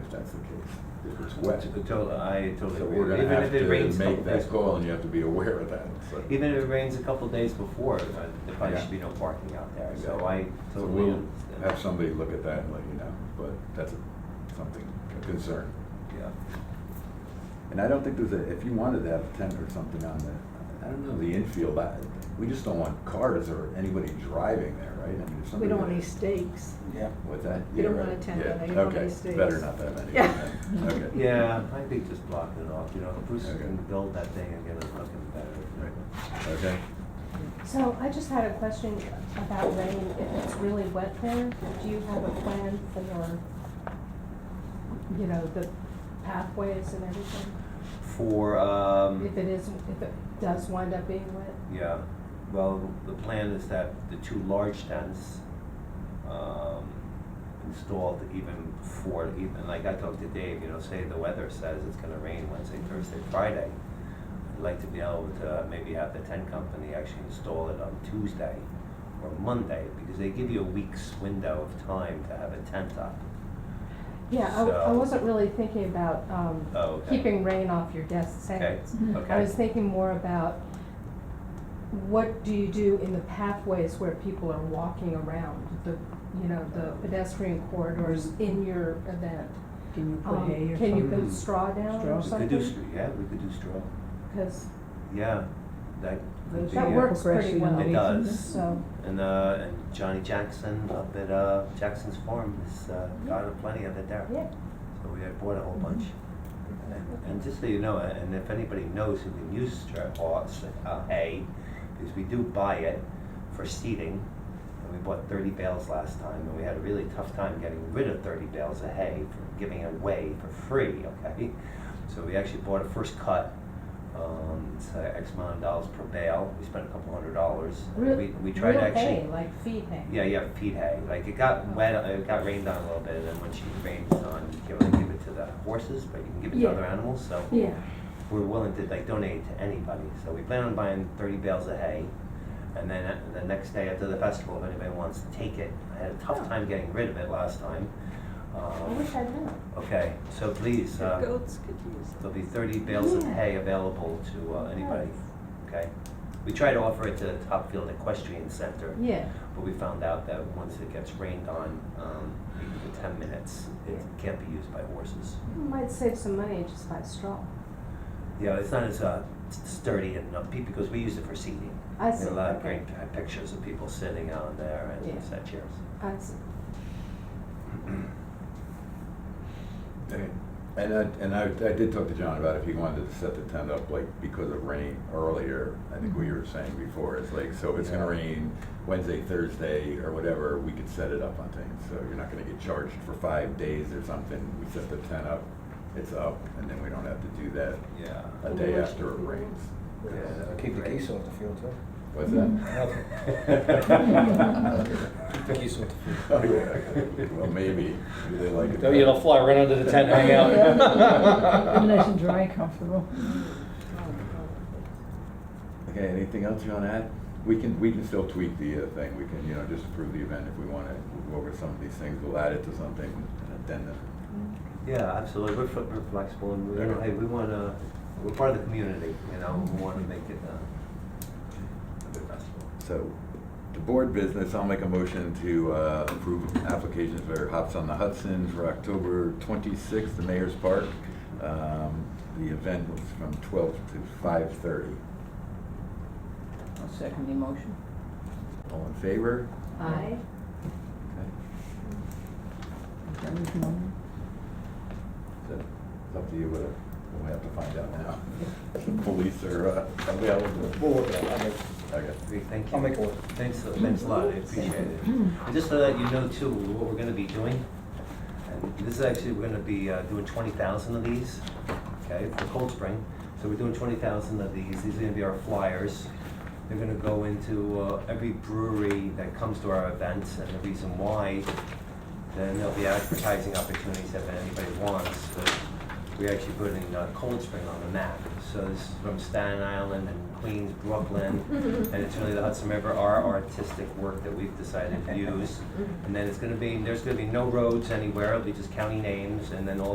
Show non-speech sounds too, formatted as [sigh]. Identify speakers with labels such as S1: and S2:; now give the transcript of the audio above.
S1: that's the case. If it's
S2: I
S1: wet.
S2: totally, I
S1: So
S2: totally
S1: we're
S2: agree.
S1: gonna
S2: Even
S1: have
S2: if it
S1: to
S2: rains a
S1: make
S2: couple days
S1: that
S2: before.
S1: call and you have to be aware of that, so.
S2: Even if it rains a couple days before, uh, there probably
S1: Yeah.
S2: should be no parking out there, so
S1: Yeah.
S2: I
S1: So
S2: totally
S1: we'll
S2: understand.
S1: have somebody look at that and let you know, but that's a- something, a concern.
S2: Yeah.
S1: And I don't think there's a, if you wanted to have a tent or something on the, I don't know, the infield, I, we just don't want cars or anybody driving there, right? I mean, if
S3: We
S1: somebody.
S3: don't want any stakes.
S1: Yeah, what's that?
S3: We don't
S1: Yeah,
S3: want a
S1: right.
S3: tent on
S1: Yeah.
S3: there. You don't want any
S1: Okay,
S3: stakes.
S1: better not that many.
S3: Yeah.
S1: Okay.
S2: [laughs] Yeah, I think just blocking it off, you know, if Bruce is
S1: Okay.
S2: gonna build that thing and get it looking better.
S1: Okay,
S4: So I just had a question about rain, if it's really wet there, do you have a plan for, you know, the pathways and everything?
S2: For,
S4: If
S2: um,
S4: it is, if it does wind up being wet?
S2: yeah, well, the plan is that the two large tents, um, installed even before, even, like I talked to Dave, you know, say the weather says it's gonna rain Wednesday, Thursday, Friday. I'd like to be able to maybe have the tent company actually install it on Tuesday or Monday, because they give you a week's window of time to have a tent up.
S4: Yeah, I, I
S2: So-
S4: wasn't really thinking about, um,
S2: Oh, okay.
S4: keeping rain off your desk
S2: Okay,
S4: sentence.
S2: okay.
S4: I was thinking more about what do you do in the pathways where people are walking around, the, you know, the pedestrian corridors
S2: Mm-hmm.
S4: in your event?
S3: Can you put
S4: Um,
S3: hay or
S4: Can you
S3: something?
S4: put straw down or
S3: Straw.
S2: We could do,
S4: something?
S2: str- yeah, we could do straw,
S4: Because
S2: yeah, that could
S3: Those
S2: be.
S4: that
S2: uh,
S3: Yeah.
S4: works pretty
S3: Progression
S4: well.
S2: It does.
S4: So,
S2: And, uh, and Johnny Jackson up at, uh, Jackson's Farm has, uh, got a plenty of it there.
S4: yeah, Mm-hmm.
S2: So we had bought a whole bunch. And, and just so you know, and if anybody knows who can use straw, uh, hay, because we do buy it for seeding. And we bought thirty bales last time, and we had a really tough time getting rid of thirty bales of hay, for giving it away for free, [laughs] okay? So we actually bought a first cut, um, it's uh, X amount of dollars per bale, we spent a couple hundred dollars. And
S4: real,
S2: We, we tried
S4: real
S2: to actually.
S4: hay, like feed hay.
S2: Yeah, yeah, feed hay. Like it got wet, uh, it got rained on a little bit, and then when she rains on, you can give it to the horses, but you can give it to
S4: Yeah.
S2: other animals. So
S4: Yeah,
S2: we're willing to like donate to anybody. So we plan on buying 30 bales of hay, and then uh, the next day after the festival, if anybody wants to take it, I had a tough
S4: Oh.
S2: time getting rid of it last time.
S4: I
S2: Um,
S4: wish I'd known.
S2: okay, so please, uh,
S5: Goats could use it.
S2: there'll be 30 bales of
S4: Yeah.
S2: hay available to uh, anybody. Okay, we try to offer it to the Topfield Equestrian Center.
S4: Yeah,
S2: But we found out that once it gets rained on, um, for ten minutes, it can't be used by horses.
S4: You might save some money just by straw.
S2: Yeah, it's not as, uh, sturdy and, uh, pe- because we use it for seating.
S4: I see,
S2: And a lot of
S4: okay.
S2: great uh, pictures of people sitting on there
S4: Yeah.
S2: and set chairs.
S4: I see.
S1: Okay. and I, and I, I did talk to John about if he wanted to set the tent up, like, because of rain earlier, I think we were saying before, it's like, so if it's gonna
S2: Yeah.
S1: rain Wednesday, Thursday, or whatever, we could set it up on things, so you're not gonna get charged for five days or something, we set the tent up, it's up, and then we don't have to do that
S2: Yeah.
S1: a day after it rains.
S2: Yeah.
S6: Keep uh, the geese off the field too.
S1: What's that? [laughs]
S6: Keep the geese off the field.
S1: Oh, yeah. Well, maybe, maybe they like it.
S6: They'll, you know, Oh, fly right under the tent, hang [laughs]
S3: Be Nice
S6: out.
S3: and dry, comfortable.
S1: Okay, anything else you wanna add? We can, we can still tweak the uh, thing, we can, you know, just approve the event if we wanna go over some of these things, we'll add it to something, an addendum.
S2: Yeah, absolutely. We're, fl- we're flexible and we, you know,
S1: Okay.
S2: hey, we wanna, we're part of the community, you know, we wanna make it, uh, a good festival.
S1: So, the board business, I'll make a motion to uh, approve applications for Hops on the Hudson for October twenty-sixth, the Mayor's Park. Um, The event was from twelve to five-thirty.
S3: I'll second the motion.
S1: All in favor?
S4: I,
S1: Okay.
S3: Is that what you want?
S1: So, It's up to you, whether, we'll have to find out now. [laughs] The Police are uh, available.
S6: We'll work it out. I'll make,
S1: Okay.
S2: Great, thank you.
S6: I'll make it work.
S2: Thanks, uh, thanks a lot, I appreciate it. And just so that you know too, what we're gonna be doing, and this is actually, we're gonna be uh, doing twenty thousand of these, okay, for Cold Spring. So we're doing twenty thousand of these, these are gonna be our flyers. They're gonna go into uh, every brewery that comes to our events, and the reason why, then there'll be advertising opportunities if anybody wants, but we're actually putting uh, Cold Spring on the map. So this is from Staten Island and Queens, Brooklyn, and it's really the Hudson River, our artistic work that we've decided to use. And then it's gonna be, there's gonna be no roads anywhere, it'll be just county names, and then all